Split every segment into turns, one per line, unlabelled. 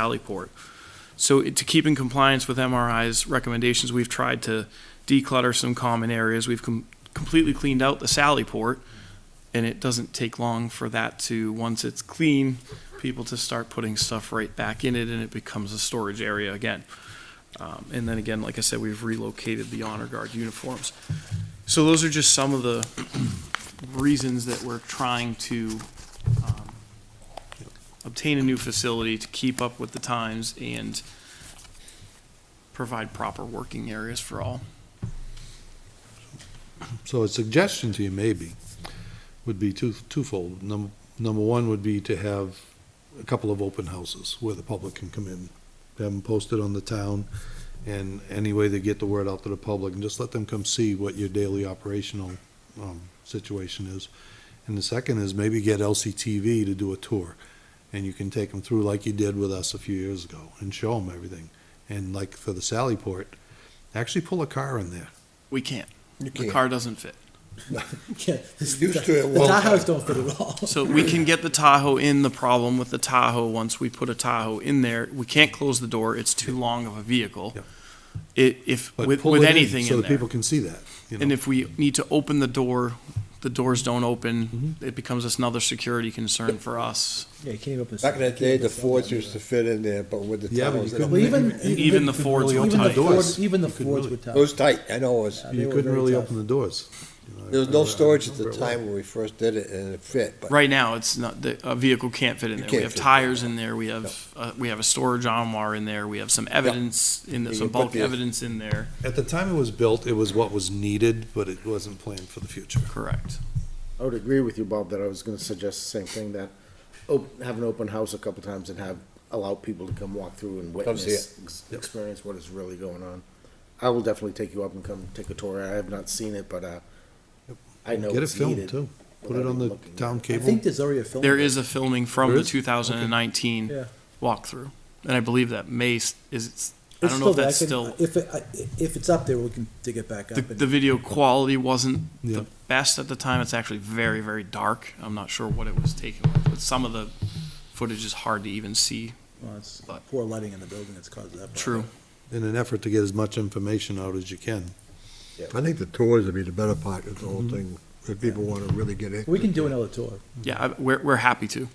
Sallyport. So it- to keep in compliance with MRI's recommendations, we've tried to declutter some common areas. We've com- completely cleaned out the Sallyport, and it doesn't take long for that to, once it's clean, people to start putting stuff right back in it, and it becomes a storage area again. Um, And then again, like I said, we've relocated the honor guard uniforms. So those are just some of the reasons that we're trying to um, obtain a new facility to keep up with the times and provide proper working areas for all.
So a suggestion to you maybe would be two, twofold. Number, number one would be to have a couple of open houses where the public can come in. Have them posted on the town and any way they get the word out to the public and just let them come see what your daily operational, um, situation is. And the second is maybe get LCTV to do a tour. And you can take them through like you did with us a few years ago and show them everything. And like for the Sallyport, actually pull a car in there.
We can't. The
can't.
car doesn't fit.
Yeah, this-
Used to it
the
one
Tahoe's don't fit at all.
So we can get the Tahoe in. The problem with the Tahoe, once we put a Tahoe in there, we can't close the door. It's too long of a vehicle.
Yeah.
It, if,
But
with,
pull
with
it in
anything
so
in
that
there.
people can see that. you
And
know.
if we need to open the door, the doors don't
Mm-hmm.
open, it becomes another security concern for us.
Yeah, you can't even open.
Back in that day, the Fords used to fit in there, but with the
Yeah, but
towers,
you
it
Well, even
Even the Fords
really
were
Even the
tight.
Fords,
Doors.
even the
You could
Fords
really-
were tough.
was tight, I know it was.
Yeah, they
You
were
couldn't
very
really
tough.
open the doors. you know,
There was
I-
no
I
storage at the
remember it well.
time when we first did it, and it fit, but
Right now, it's not, the, a vehicle can't fit in
You
there. We
can't
have
fit.
tires in there, we have, uh, we have a storage armoire in there, we have some evidence in there,
You
some
can put
bulk
the-
evidence in there.
At the time it was built, it was what was needed, but it wasn't planned for the future.
Correct.
I would agree with you, Bob, that I was gonna suggest the same thing, that op- have an open house a couple times and have, allow people to come walk through and
Come see
witness, ex- experience what is really going on. I will definitely take you up and come take a tour. I have not seen it, but, uh, I know
Get it
it's
filmed
needed.
too. Put
without
it on
even
the
looking
town
I
cable.
think there's already a film.
There is a filming from
There
the
is?
two thousand and nineteen
Yeah.
walkthrough, and I believe that May s- is, it's- I
It's
don't know if
still-
that's
can-
still,
If, it- I- if it's up there, we can dig it back
the,
up. and-
the video quality wasn't
Yeah.
the best at the time. It's actually very, very dark. I'm not sure what it was taken with, but some of the footage is hard to even see.
well, it's
but-
Poor lighting in the building that's caused that.
True.
problem.
In an effort to get as much information out as you can.
I think the tours would be the better part of the whole thing, if people want to really get in.
We can do another tour.
Yeah, I, we're, we're happy to.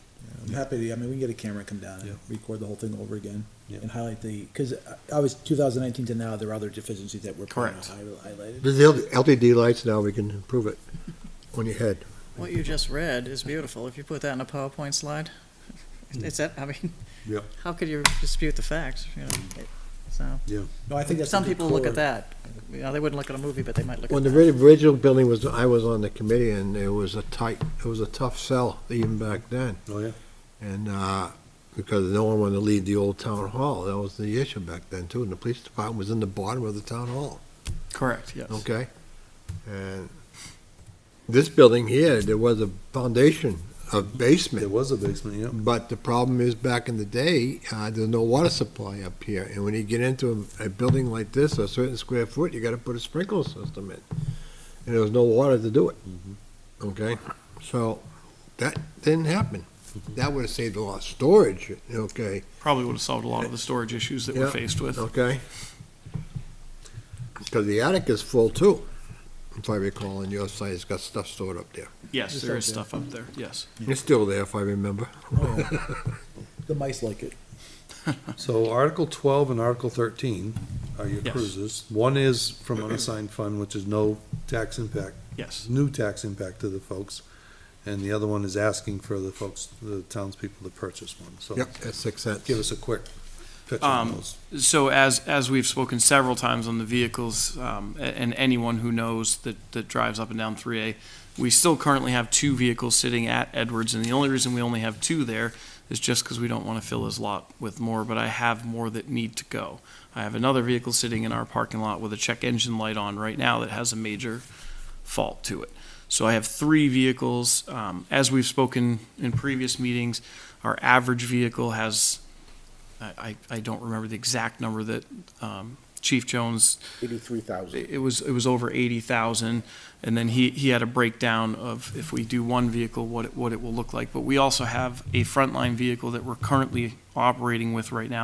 I'm happy to, I mean, we can get a camera, come down
Yeah.
and record the whole thing over again
Yeah.
and highlight the, because obviously 2019 to now, there are other deficiencies that were pointed out,
Correct.
highli- highlighted.
There's the LTD lights now, we can improve it on your head.
What you just read is beautiful. If you put that in a PowerPoint slide, it's that, I mean,
Yeah.
how could you dispute the facts, you know? It- So,
No, I think that's. a
some
good
people look
tour.
at that, you know, they wouldn't look at a movie, but they might look at
When the
that.
very original building was, I was on the committee, and it was a tight, it was a tough sell even back then.
Oh, yeah.
And, uh, because no one wanted to leave the old town hall, that was the issue back then too, and the police department was in the bottom of the town hall.
Correct, yes.
Okay? And this building here, there was a foundation,
There
a basement,
was a basement, yeah.
but the problem is back in the day, uh, there's no water supply up here. And when you get into a, a building like this, a certain square foot, you gotta put a sprinkler system in. And there was no water to do it. Okay? So that didn't happen. That would've saved a lot of storage, okay?
Probably would have solved a lot of the storage issues that we're
Yeah.
faced with.
Okay. Because the attic is full too, if I recall, and your site has got stuff stored up there.
Yes,
Just
there
up
is
there.
stuff up there, yes.
It's still there, if I remember.
Oh. The mice like it.
So Article twelve and Article thirteen are your
Yes.
cruises. One is from unassigned fund, which is no tax impact,
Yes,
new tax impact to the folks. And the other one is asking for the folks, the townspeople to purchase one, so.
Yep, at six cents.
Give us a quick picture of
Um,
those.
so as, as we've spoken several times on the vehicles, um, a- and anyone who knows that, that drives up and down three A, we still currently have two vehicles sitting at Edwards, and the only reason we only have two there is just because we don't want to fill his lot with more, but I have more that need to go. I have another vehicle sitting in our parking lot with a check engine light on right now that has a major fault to it. So I have three vehicles. Um, as we've spoken in previous meetings, our average vehicle has, I, I, I don't remember the exact number that, um, Chief Jones
Eighty-three thousand.
it was, it was over eighty thousand, and then he, he had a breakdown of if we do one vehicle, what it, what it will look like. But we also have a frontline vehicle that we're currently operating with right now